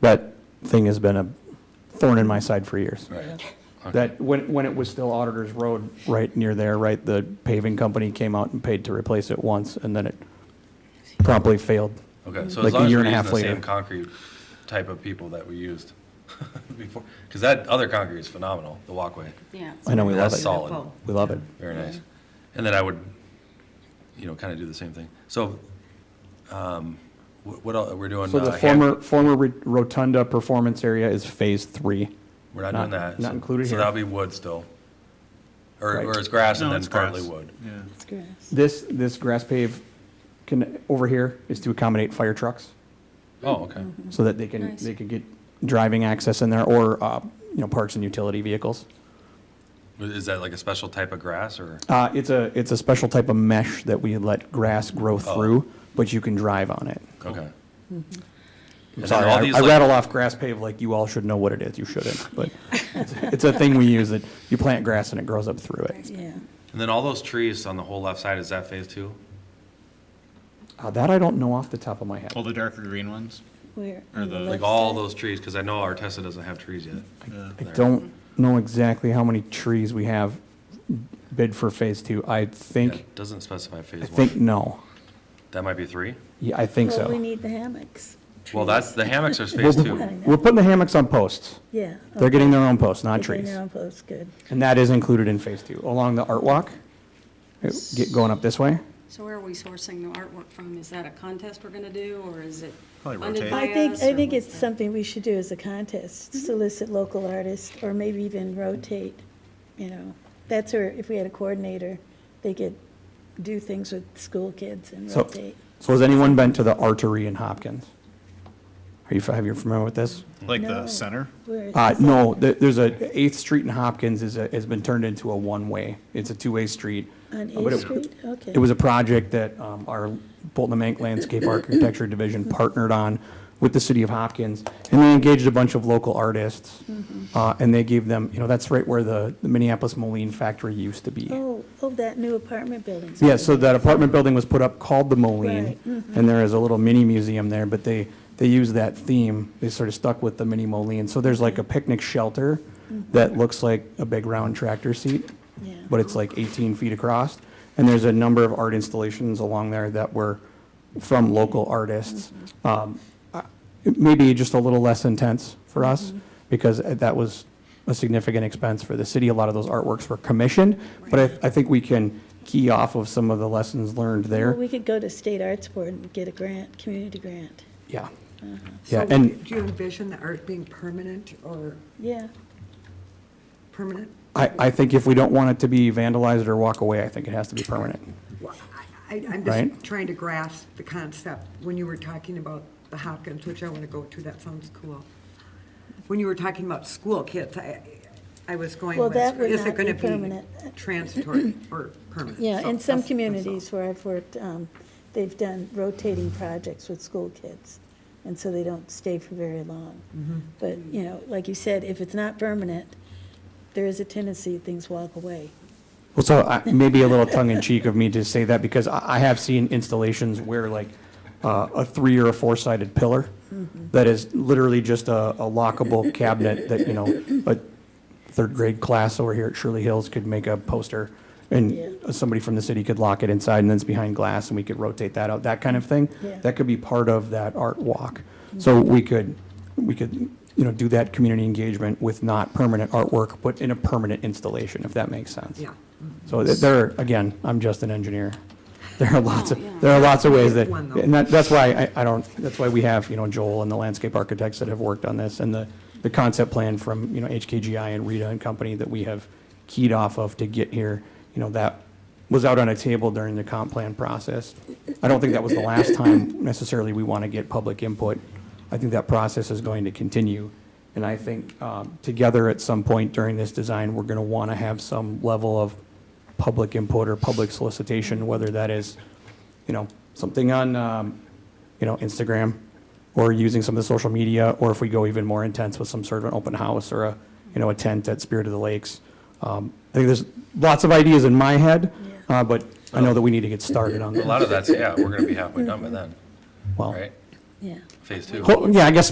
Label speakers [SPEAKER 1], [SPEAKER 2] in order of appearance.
[SPEAKER 1] That thing has been a thorn in my side for years.
[SPEAKER 2] Right.
[SPEAKER 1] That, when, when it was still Auditor's Road, right near there, right, the paving company came out and paid to replace it once, and then it promptly failed.
[SPEAKER 2] Okay, so
[SPEAKER 1] Like
[SPEAKER 2] as
[SPEAKER 1] a
[SPEAKER 2] long as
[SPEAKER 1] year
[SPEAKER 2] we're
[SPEAKER 1] and a
[SPEAKER 2] using
[SPEAKER 1] half
[SPEAKER 2] the
[SPEAKER 1] later.
[SPEAKER 2] same concrete type of people that we used before, because that other concrete is phenomenal, the walkway,
[SPEAKER 3] Yeah.
[SPEAKER 1] I know we love
[SPEAKER 2] That's
[SPEAKER 1] it.
[SPEAKER 2] solid.
[SPEAKER 1] We love it.
[SPEAKER 2] very nice. And then I would, you know, kind of do the same thing. So, um, wh- what else, we're doing?
[SPEAKER 1] So the
[SPEAKER 2] uh, Ham-
[SPEAKER 1] former, former re- rotunda performance area is phase three.
[SPEAKER 2] We're not
[SPEAKER 1] not-
[SPEAKER 2] doing that.
[SPEAKER 1] not
[SPEAKER 2] so-
[SPEAKER 1] included
[SPEAKER 2] So
[SPEAKER 1] here.
[SPEAKER 2] that'll be wood still, or,
[SPEAKER 1] Right.
[SPEAKER 2] or it's grass and
[SPEAKER 4] No,
[SPEAKER 2] then
[SPEAKER 4] it's
[SPEAKER 2] partly
[SPEAKER 4] grass.
[SPEAKER 2] wood.
[SPEAKER 4] Yeah.
[SPEAKER 3] It's grass.
[SPEAKER 1] This, this grass pave can, over here, is to accommodate fire trucks,
[SPEAKER 2] Oh, okay,
[SPEAKER 1] so that they can,
[SPEAKER 3] Nice.
[SPEAKER 1] they could get driving access in there, or, uh, you know, parks and utility vehicles.
[SPEAKER 2] is that like a special type of grass or?
[SPEAKER 1] Uh, it's a, it's a special type of mesh that we let grass grow
[SPEAKER 2] Oh.
[SPEAKER 1] through, but you can drive on it.
[SPEAKER 2] Okay.
[SPEAKER 1] I'm
[SPEAKER 2] And then
[SPEAKER 1] sorry,
[SPEAKER 2] all
[SPEAKER 1] I,
[SPEAKER 2] these,
[SPEAKER 1] I
[SPEAKER 2] like-
[SPEAKER 1] rattle off grass pave like you all should know what it is. You shouldn't, but it's, it's a thing we use that you plant grass and it grows up through it.
[SPEAKER 3] Yeah.
[SPEAKER 2] And then all those trees on the whole left side, is that phase two?
[SPEAKER 1] Uh, that I don't know off the top of my head.
[SPEAKER 4] All the darker green ones?
[SPEAKER 3] Where?
[SPEAKER 4] Or the-
[SPEAKER 2] Like all those trees, because I know Artesa doesn't have trees yet.
[SPEAKER 4] Yeah.
[SPEAKER 1] I don't know exactly how many trees we have bid for phase two. I
[SPEAKER 2] Yeah,
[SPEAKER 1] think,
[SPEAKER 2] it Doesn't specify
[SPEAKER 1] I
[SPEAKER 2] phase
[SPEAKER 1] think
[SPEAKER 2] one.
[SPEAKER 1] no.
[SPEAKER 2] That might be three.
[SPEAKER 1] Yeah, I think
[SPEAKER 3] Well, we
[SPEAKER 1] so.
[SPEAKER 3] need the hammocks.
[SPEAKER 2] Well, that's, the hammocks are
[SPEAKER 1] We're,
[SPEAKER 2] phase two.
[SPEAKER 1] we're putting the hammocks on posts.
[SPEAKER 3] Yeah.
[SPEAKER 1] They're getting their own posts, not trees.
[SPEAKER 3] post, good.
[SPEAKER 1] And that is included in phase two, along the art walk, uh, get going up this way.
[SPEAKER 5] So where are we sourcing the artwork from? Is that a contest we're gonna do, or is it
[SPEAKER 4] Probably
[SPEAKER 5] funded
[SPEAKER 4] rotate.
[SPEAKER 5] by
[SPEAKER 3] I think,
[SPEAKER 5] us,
[SPEAKER 3] I
[SPEAKER 5] or
[SPEAKER 3] think
[SPEAKER 5] what's
[SPEAKER 3] it's
[SPEAKER 5] that?
[SPEAKER 3] something we should do as a contest,
[SPEAKER 1] Mm-hmm.
[SPEAKER 3] solicit local artists, or maybe even rotate, you know. That's where, if we had a coordinator, they could do things with school kids and
[SPEAKER 1] So-
[SPEAKER 3] rotate.
[SPEAKER 1] So has anyone been to the artery in Hopkins? Are you, have you familiar with this?
[SPEAKER 4] Like
[SPEAKER 3] No.
[SPEAKER 4] the center?
[SPEAKER 3] Where is
[SPEAKER 1] Uh,
[SPEAKER 3] this?
[SPEAKER 1] no, there, there's a, Eighth Street in Hopkins is, a- has been turned into a one-way. It's a two-way street. But
[SPEAKER 3] On
[SPEAKER 1] it-
[SPEAKER 3] Eighth Street? Okay.
[SPEAKER 1] It was a project that, um, our Bolton and Mank Landscape Architecture Division partnered on with the city of Hopkins. And they engaged a bunch of local artists, uh, and they gave them, you know, that's right where the the Minneapolis Moline factory used to be.
[SPEAKER 3] Oh, oh, that new apartment building.
[SPEAKER 1] Yeah, so that apartment building was put up called the Moline,
[SPEAKER 3] Right, mhm.
[SPEAKER 1] and there is a little mini museum there, but they, they use that theme. They sort of stuck with the mini Moline. So there's like a picnic shelter that looks like a big round tractor seat,
[SPEAKER 3] Mm-hmm. Yeah.
[SPEAKER 1] but it's like 18 feet across. And there's a number of art installations along there that were from local artists. Um, I- Maybe just a little less intense for
[SPEAKER 3] Mm-hmm.
[SPEAKER 1] us, because that was a significant expense for the city. A lot of those artworks were commissioned, but I, I think we can key off of some of the lessons learned
[SPEAKER 3] Well,
[SPEAKER 1] there.
[SPEAKER 3] we could go to State Arts Board and get a grant, community grant.
[SPEAKER 1] Yeah.
[SPEAKER 3] Uh-huh.
[SPEAKER 1] Yeah,
[SPEAKER 6] So
[SPEAKER 1] and
[SPEAKER 6] Do you envision the art being permanent or
[SPEAKER 3] Yeah,
[SPEAKER 6] permanent?
[SPEAKER 1] I, I think if we don't want it to be vandalized or walk away, I think it has to be permanent.
[SPEAKER 6] Well, I, I- I'm
[SPEAKER 1] Right.
[SPEAKER 6] just trying to grasp the concept. When you were talking about the Hopkins, which I want to go to, that sounds cool. When you were talking about school kids, I, I was going
[SPEAKER 3] Well,
[SPEAKER 6] with,
[SPEAKER 3] that would
[SPEAKER 6] is
[SPEAKER 3] not
[SPEAKER 6] it going to
[SPEAKER 3] be
[SPEAKER 6] be
[SPEAKER 3] permanent.
[SPEAKER 6] transitory or permanent?
[SPEAKER 3] yeah,
[SPEAKER 6] So
[SPEAKER 3] in some
[SPEAKER 6] that's- that's all.
[SPEAKER 3] communities where I've worked, um, they've done rotating projects with school kids, and so they don't stay for very long. But, you know, like you said, if it's not permanent, there is a tendency things walk away.
[SPEAKER 1] Well, so I- maybe a little tongue-in-cheek of me to say that, because I I have seen installations where like uh, a three or a four-sided pillar
[SPEAKER 3] Mm-hmm.
[SPEAKER 1] that is literally just a a lockable cabinet that, you know, a third-grade class over here at Shirley Hills could make a poster,
[SPEAKER 3] Yeah.
[SPEAKER 1] and somebody from the city could lock it inside, and then it's behind glass, and we could rotate that out, that kind of thing.
[SPEAKER 3] Yeah. Mm-hmm.
[SPEAKER 1] That could be part of that art walk. So we could, we could, you know, do that community engagement with not permanent artwork, but in a permanent installation, if that makes sense.
[SPEAKER 6] Yeah.
[SPEAKER 1] So th- there, are- again, I'm just an engineer. There are lots
[SPEAKER 5] Oh, yeah.
[SPEAKER 1] of, there are lots of ways that,
[SPEAKER 6] One, though.
[SPEAKER 1] and that, that's why I, I don't, that's why we have, you know, Joel and the landscape architects that have worked on this and the, the concept plan from, you know, HKGI and Rita and company that we have keyed off of to get here. You know, that was out on a table during the comp plan process. I don't think that was the last time necessarily we want to get public input. I think that process is going to continue. And I think um, together at some point during this design, we're going to want to have some level of public input or public solicitation, whether that is, you know, something on, um, you know, Instagram or using some of the social media, or if we go even more intense with some sort of an open house or a, you know, a tent at Spirit of the Lakes. Um, I think there's lots of ideas in my head, uh, but I know that we need to get started on
[SPEAKER 2] A lot
[SPEAKER 1] that.
[SPEAKER 2] of that's, yeah, we're gonna be halfway done by then,
[SPEAKER 1] Well,
[SPEAKER 2] right?
[SPEAKER 3] Yeah.
[SPEAKER 2] Phase two.
[SPEAKER 1] ho- yeah, I guess